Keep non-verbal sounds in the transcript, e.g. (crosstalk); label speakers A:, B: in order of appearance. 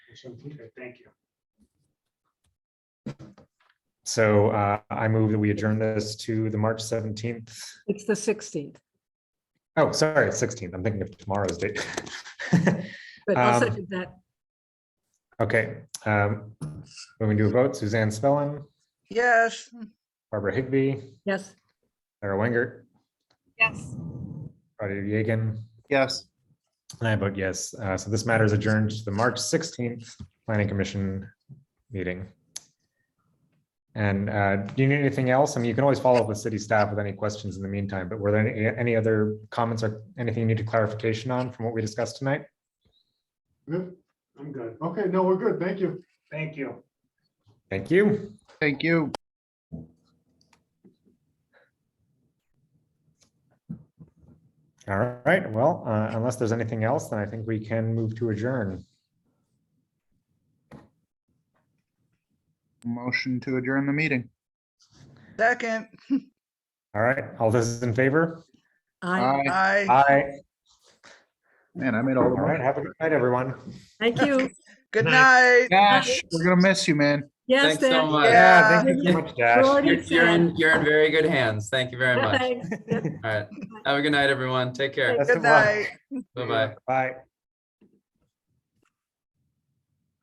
A: Okay, thank you.
B: So uh, I move that we adjourn this to the March 17th.
C: It's the 16th,
B: Oh, sorry, 16th. I'm thinking of tomorrow's date. (laughs)
C: but I'll
B: Um,
C: second that.
B: Okay. um, When we do a vote, Suzanne Spellin,
D: Yes.
B: Barbara Higbee,
C: Yes,
B: Sarah Wenger. Yes. Claudia Yegan,
D: Yes.
B: and I vote yes. Uh, So this matter is adjourned to the March 16th Planning Commission meeting. And uh, do you need anything else? I mean, you can always follow up with city staff with any questions in the meantime, but were there any, any other comments or anything you needed clarification on from what we discussed tonight?
A: Good. I'm good.
E: Okay, no, we're good. Thank you.
A: Thank you.
B: Thank you.
D: Thank you.
B: All right. Well, uh, unless there's anything else, then I think we can move to adjourn.
D: Motion to adjourn the meeting.
E: Second,
B: All right. All those in favor?
F: Uh,
C: I,
D: Aye.
E: aye.
B: Aye.
D: Man, I made
B: All
D: all the
B: right.
D: money.
B: Have a good night, everyone.
C: thank you.
E: Good
A: Night.
E: night.
D: Dash, we're gonna miss you, man.
C: Yes,
F: Thanks so
C: Dan.
F: much.
B: Yeah, thank you so much, Dash.
C: Jordan
F: You're, you're in,
C: said.
F: you're in very good hands. Thank you very much.
C: Thanks.
F: All right. Have a good night, everyone. Take care.
B: Best
E: Good
B: of luck.
E: night.
F: Bye-bye.
B: Bye.